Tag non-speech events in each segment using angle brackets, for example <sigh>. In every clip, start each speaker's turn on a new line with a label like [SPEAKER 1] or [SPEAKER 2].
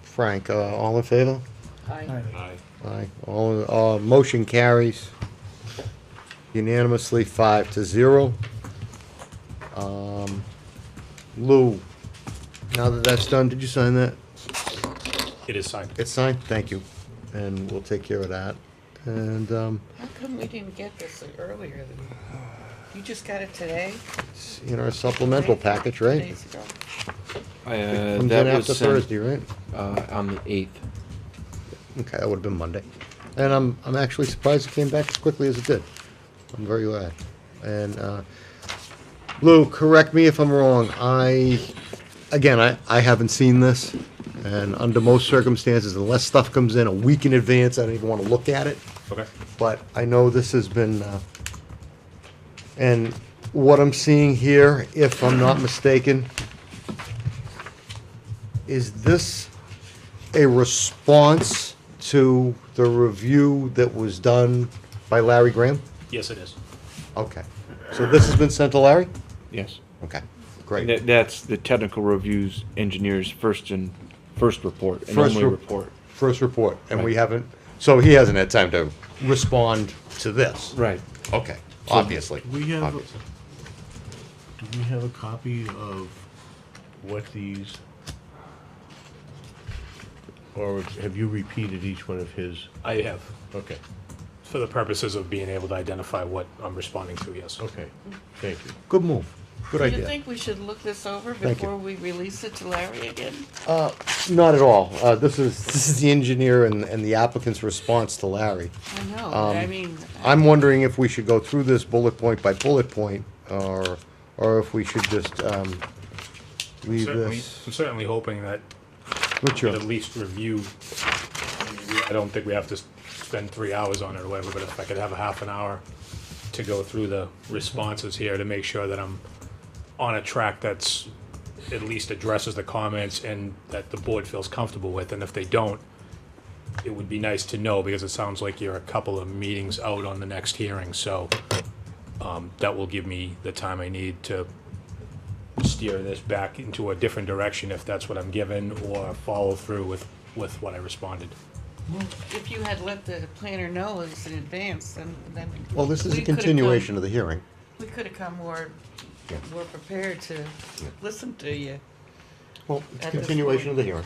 [SPEAKER 1] Frank. Uh, All in favor?
[SPEAKER 2] Aye.
[SPEAKER 3] Aye.
[SPEAKER 1] Aye. All, all- motion carries unanimously, five to zero. Um, Lou, now that that's done, did you sign that?
[SPEAKER 3] It is signed.
[SPEAKER 1] It's signed, thank you. And we'll take care of that. And um,
[SPEAKER 2] How come we didn't get this earlier than, you just got it today?
[SPEAKER 1] it's in our supplemental package,
[SPEAKER 2] Two
[SPEAKER 1] right?
[SPEAKER 2] days ago?
[SPEAKER 4] Uh,
[SPEAKER 1] Comes in
[SPEAKER 4] that
[SPEAKER 1] after
[SPEAKER 4] was sent,
[SPEAKER 1] Thursday, right?
[SPEAKER 4] uh, on the eighth.
[SPEAKER 1] Okay, that would have been Monday. And I'm, I'm actually surprised it came back as quickly as it did. I'm very glad. And, uh, Lou, correct me if I'm wrong. I, again, I, I haven't seen this. And under most circumstances, unless stuff comes in a week in advance, I don't even want to look at it.
[SPEAKER 3] Okay.
[SPEAKER 1] But I know this has been, uh, and what I'm seeing here, if I'm not mistaken, is this a response to the review that was done by Larry Graham?
[SPEAKER 3] Yes, it is.
[SPEAKER 1] Okay. So this has been sent to Larry?
[SPEAKER 4] Yes.
[SPEAKER 1] Okay,
[SPEAKER 4] And
[SPEAKER 1] great.
[SPEAKER 4] That, that's the technical reviews engineer's first and, first report and
[SPEAKER 1] First
[SPEAKER 4] only
[SPEAKER 1] rep-
[SPEAKER 4] report.
[SPEAKER 1] First report, and we haven't, so he hasn't had time to respond to this?
[SPEAKER 4] Right.
[SPEAKER 1] Okay, obviously.
[SPEAKER 5] we have-
[SPEAKER 1] obviously.
[SPEAKER 5] Do we have a copy of what these? Or have you repeated each one of his?
[SPEAKER 3] I have,
[SPEAKER 5] Okay,
[SPEAKER 3] for the purposes of being able to identify what I'm responding to, yes.
[SPEAKER 5] okay, thank you.
[SPEAKER 1] Good move. Good
[SPEAKER 2] Do you
[SPEAKER 1] idea.
[SPEAKER 2] think we should look this over
[SPEAKER 1] Thank you.
[SPEAKER 2] before we release it to Larry again?
[SPEAKER 1] Not at all. Uh, this is, <laughs> this is the engineer and, and the applicant's response to Larry.
[SPEAKER 2] I know,
[SPEAKER 1] Um,
[SPEAKER 2] but I mean,
[SPEAKER 1] I'm wondering if we should go through this bullet point by bullet point, or, or if we should just, um, leave
[SPEAKER 3] Certainly,
[SPEAKER 1] this.
[SPEAKER 3] I'm certainly hoping that
[SPEAKER 1] What's
[SPEAKER 3] we
[SPEAKER 1] your,
[SPEAKER 3] at least review. I mean, we- I don't think we have to s- spend three hours on it or whatever, but if I could have a half an hour to go through the responses here to make sure that I'm on a track that's at least addresses the comments and that the board feels comfortable with, and if they don't, it would be nice to know, because it sounds like you're a couple of meetings out on the next hearing, so um, that will give me the time I need to steer this back into a different direction if that's what I'm given, or follow through with, with what I responded.
[SPEAKER 2] if you had let the planner know this in advance, then, then.
[SPEAKER 1] well, this is
[SPEAKER 2] we
[SPEAKER 1] a
[SPEAKER 2] could've come-
[SPEAKER 1] continuation of the hearing.
[SPEAKER 2] We could have come more,
[SPEAKER 1] Yeah.
[SPEAKER 2] more prepared to listen to you.
[SPEAKER 1] Well, it's a
[SPEAKER 2] At this
[SPEAKER 1] continuation of
[SPEAKER 2] point.
[SPEAKER 1] the hearing.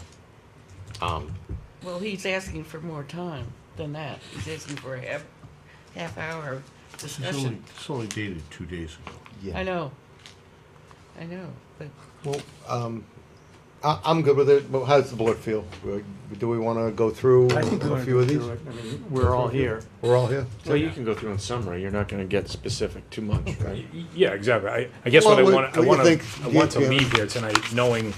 [SPEAKER 1] Um,
[SPEAKER 2] Well, he's asking for more time than that. He's asking for a half, half hour of
[SPEAKER 5] It's only,
[SPEAKER 2] discussion.
[SPEAKER 5] it's only dated two days ago.
[SPEAKER 1] yeah.
[SPEAKER 2] I know. I know, but
[SPEAKER 1] Well, um, I, I'm good with it, but how's the board feel? Uh, Do we wanna go through
[SPEAKER 6] I think we
[SPEAKER 1] a
[SPEAKER 6] want to
[SPEAKER 1] few
[SPEAKER 6] go
[SPEAKER 1] of these?
[SPEAKER 6] through it. I mean, we're all here.
[SPEAKER 1] We're all here?
[SPEAKER 4] Well, you can go through in summary, you're not gonna get specific too much.
[SPEAKER 3] Y- Yeah, exactly. I, I guess what I
[SPEAKER 1] Well,
[SPEAKER 3] want,
[SPEAKER 1] what-
[SPEAKER 3] I
[SPEAKER 1] what you
[SPEAKER 3] want to,
[SPEAKER 1] think,
[SPEAKER 3] I want to
[SPEAKER 1] yeah.
[SPEAKER 3] leave here tonight knowing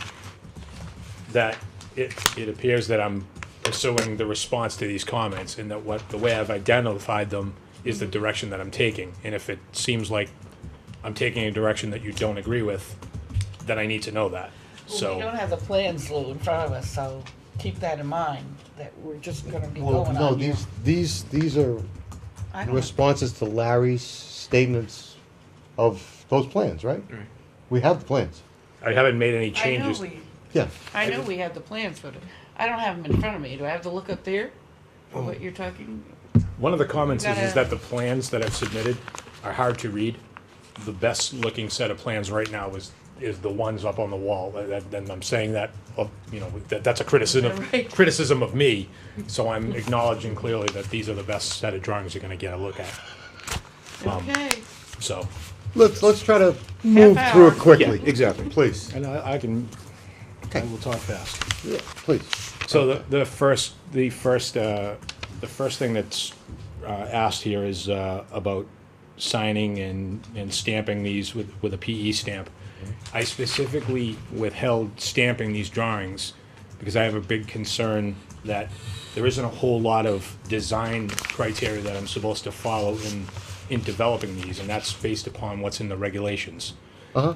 [SPEAKER 3] that it, it appears that I'm pursuing the response to these comments and that what, the way I've identified them is the direction that I'm taking. And if it seems like I'm taking a direction that you don't agree with, then I need to know that.
[SPEAKER 2] Well, we don't
[SPEAKER 3] So,
[SPEAKER 2] have the plans, Lou, in front of us, so keep that in mind, that we're just gonna be
[SPEAKER 1] Well,
[SPEAKER 2] going
[SPEAKER 1] no,
[SPEAKER 2] on here.
[SPEAKER 1] these, these, these are
[SPEAKER 2] I don't-
[SPEAKER 1] responses to Larry's statements of those plans, right?
[SPEAKER 4] Right.
[SPEAKER 1] We have the plans.
[SPEAKER 3] I haven't made any
[SPEAKER 2] I know
[SPEAKER 3] changes.
[SPEAKER 2] we,
[SPEAKER 1] Yeah.
[SPEAKER 2] I know we have the plans, but I don't have them in front of me. Do I have to look up there
[SPEAKER 1] Oh.
[SPEAKER 2] for what you're talking?
[SPEAKER 3] One of the comments is, is
[SPEAKER 2] gotta-
[SPEAKER 3] that the plans that I've submitted are hard to read. The best looking set of plans right now is, is the ones up on the wall. That- that- And I'm saying that, of- you know, that, that's a criticism,
[SPEAKER 2] <laughs> Right.
[SPEAKER 3] criticism of me. So I'm acknowledging clearly that these are the best set of drawings you're gonna get a look at,
[SPEAKER 1] Um,
[SPEAKER 2] Okay,
[SPEAKER 3] so.
[SPEAKER 1] Let's, let's try to move
[SPEAKER 2] Half
[SPEAKER 1] through
[SPEAKER 2] hour.
[SPEAKER 1] it quickly. Exactly. Please,
[SPEAKER 6] And I, I can, I
[SPEAKER 1] Okay.
[SPEAKER 6] will talk fast.
[SPEAKER 1] Yeah, please.
[SPEAKER 3] So the, the first, the first, uh, the first thing that's, uh, asked here is, uh, about signing and, and stamping these with, with a PE stamp. I specifically withheld stamping these drawings because I have a big concern that there isn't a whole lot of design criteria that I'm supposed to follow in, in developing these, and that's based upon what's in the regulations.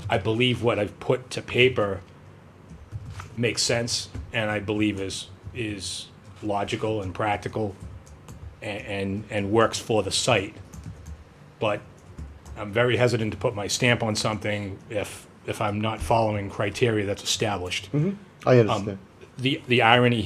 [SPEAKER 3] I believe what I've put to paper makes sense and I believe is is logical and practical and and, and works for the site. But I'm very hesitant to put my stamp on something if if I'm not following criteria that's established.
[SPEAKER 1] I
[SPEAKER 3] Um,
[SPEAKER 1] understand.
[SPEAKER 3] the the irony